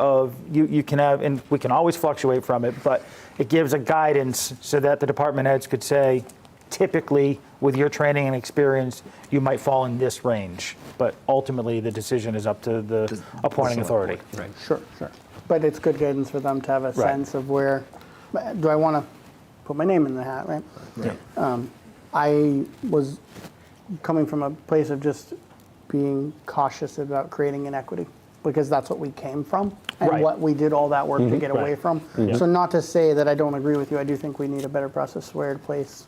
of you, you can have, and we can always fluctuate from it, but it gives a guidance so that the department heads could say, typically, with your training and experience, you might fall in this range. But ultimately, the decision is up to the appointing authority. Right. Sure, sure. But it's good guidance for them to have a sense of where, do I want to put my name in the hat, right? Yeah. I was coming from a place of just being cautious about creating inequity because that's what we came from and Right. Mm-hmm. what we did all that work to get away Right. from. So not to say that I don't agree with you, I do think we need a better process where it place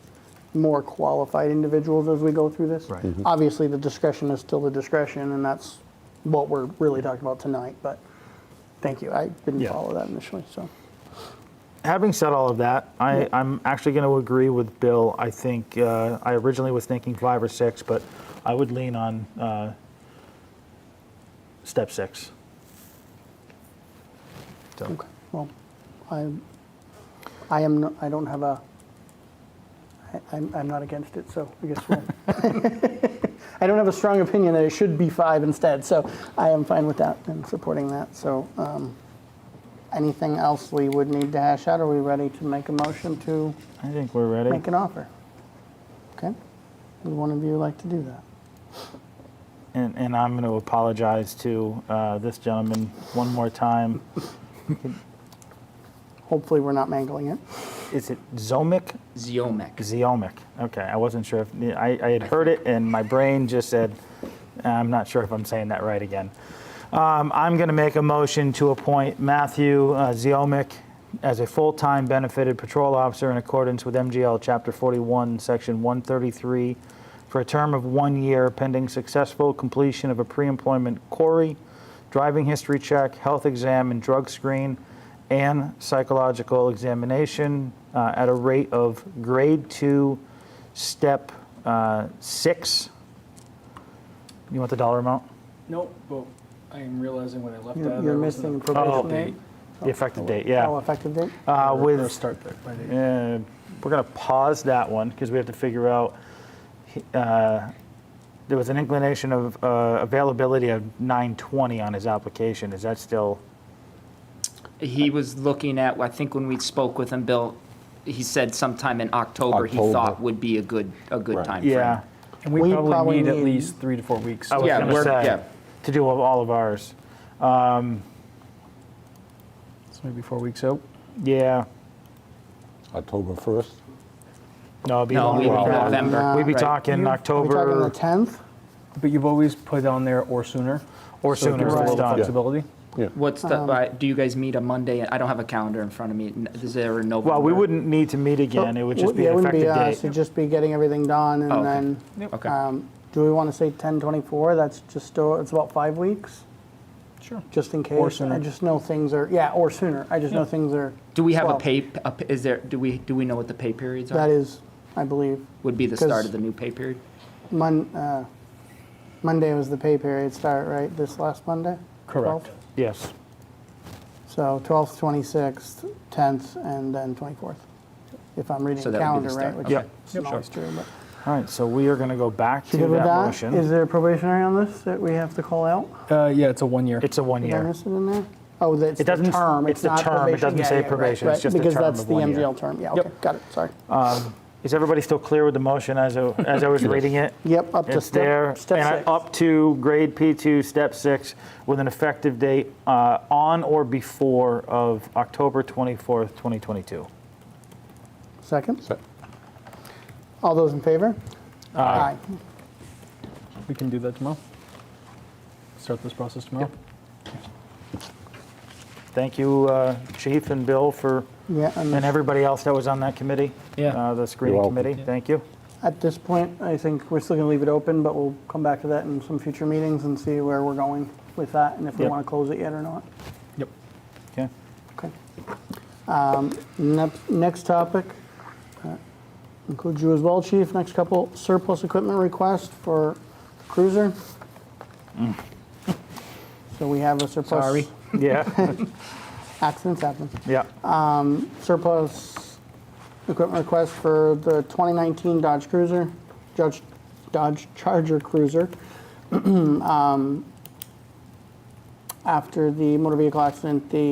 more qualified individuals as we go through this. Right. Mm-hmm. Mhm. Obviously, the discretion is still the discretion, and that's what we're really talking about tonight. But thank you. I didn't Yeah. follow that initially, so having said all of that, I, I'm actually going to agree with Bill. I think uh, I originally was thinking five or six, but I would lean on uh, step six. So, okay. Well, I I am no, I don't have a I, I'm I'm not against it, so I guess we'll. I don't have a strong opinion that it should be five instead, so I am fine with that and supporting that. So, um, anything else we would need to hash out? Are we ready to make a motion to I think we're ready. make an offer? Okay. Would one of you like to do that? And, and I'm going to apologize to uh, this gentleman one more time. Hopefully, we're not mangling it. Is it Zomic? Ziomek. Zeomic. Okay, I wasn't sure if I, I had heard it, and my brain just said, I'm not sure if I'm saying that right again. Um, I'm going to make a motion to appoint Matthew uh, Zeomic as a full-time benefited patrol officer in accordance with MGL Chapter 41, Section 133, for a term of one year pending successful completion of a pre-employment query, driving history check, health exam, and drug screen, and psychological examination uh, at a rate of grade two, step uh, six. You want the dollar amount? No, but I am realizing when I left You're, out. you're there wasn't missing a- probation date. date. The effective date, Oh, yeah. effective date. Uh, Or- or With, Start there by date. uh, we're going to pause that one because we have to figure out, uh, there was an inclination of uh, availability of 920 on his application. Is that still? He was looking at, I think when we spoke with him, Bill, he said sometime in October, he thought October. would be a good, a good timeframe. Yeah. And we We probably probably need at need- least three to four weeks. I was Yeah, going to we're- yeah. say, to do all of ours. So Maybe four weeks out. Yeah. October 1st? No, it'd be No, longer. we'd be Well, November. We'd be Right. talking Are Uh, we talking October the 10th? But you've always put on there or sooner. or So it sooner. gives if us a it's little done. Flexibility. What's the, uh, do you guys meet a Monday? I don't have a calendar in front of me. N- Is there a November? Well, we wouldn't need to meet again. It would just be Oh, Yeah, an it wouldn't uh, effective us. date. It'd just be getting everything done Oh, okay. and then, Okay. um, do we want to say 1024? That's just, still- it's about five weeks, Sure. just in case. sooner. I just know things are, yeah, or sooner. I just know things are. Do we have a well, pay, a p- is there, do we, do we know what the pay periods are? That is, I believe, Would be the 'cause- start of the new pay period? Mon, uh, Monday was the pay period start, right? This last Monday? Correct. 12th? Yes. So 12th, 26th, 10th, and then 24th, if I'm reading So the that would be calendar the right. start, which okay. Yep. is not always true, but- All right, so we are going to go back to You good with that that? Is motion. there a probationary on this that we have to call out? Uh, yeah, it's a one year. It's a one Did I year. miss it in there? Oh, that's It the doesn't- term. it's the not term. It probation. doesn't Yeah, say yeah, right, probation. It's right. just the term of one Because year. that's the MGL term, yeah, okay, got it, sorry. Is everybody still clear with the motion as I, as I was reading it? Yep, up to It's step, there, and I- step six. up to grade P2, step six, with an effective date uh, on or before of October 24th, 2022. Second, Se- all those in favor? Aye. We can do that tomorrow. Start this process tomorrow. Thank you, uh, Chief and Bill, for, Yeah, and and everybody else that was on that committee. Yeah. uh, The screening welcome. committee, thank you. at this point, I think we're still gonna leave it open, but we'll come back to that in some future meetings and see where we're going with that, and if we Yep. wanna close it yet or not. Yep. Okay. Okay. Um, Next next topic uh, includes you as well, Chief. Next couple surplus equipment requests for cruiser. So we have a surplus. Sorry. Yeah, Accidents happen. yeah. Surplus equipment request for the 2019 Dodge Cruiser, Dodge Dodge Charger Cruiser. Um, after the motor vehicle accident, the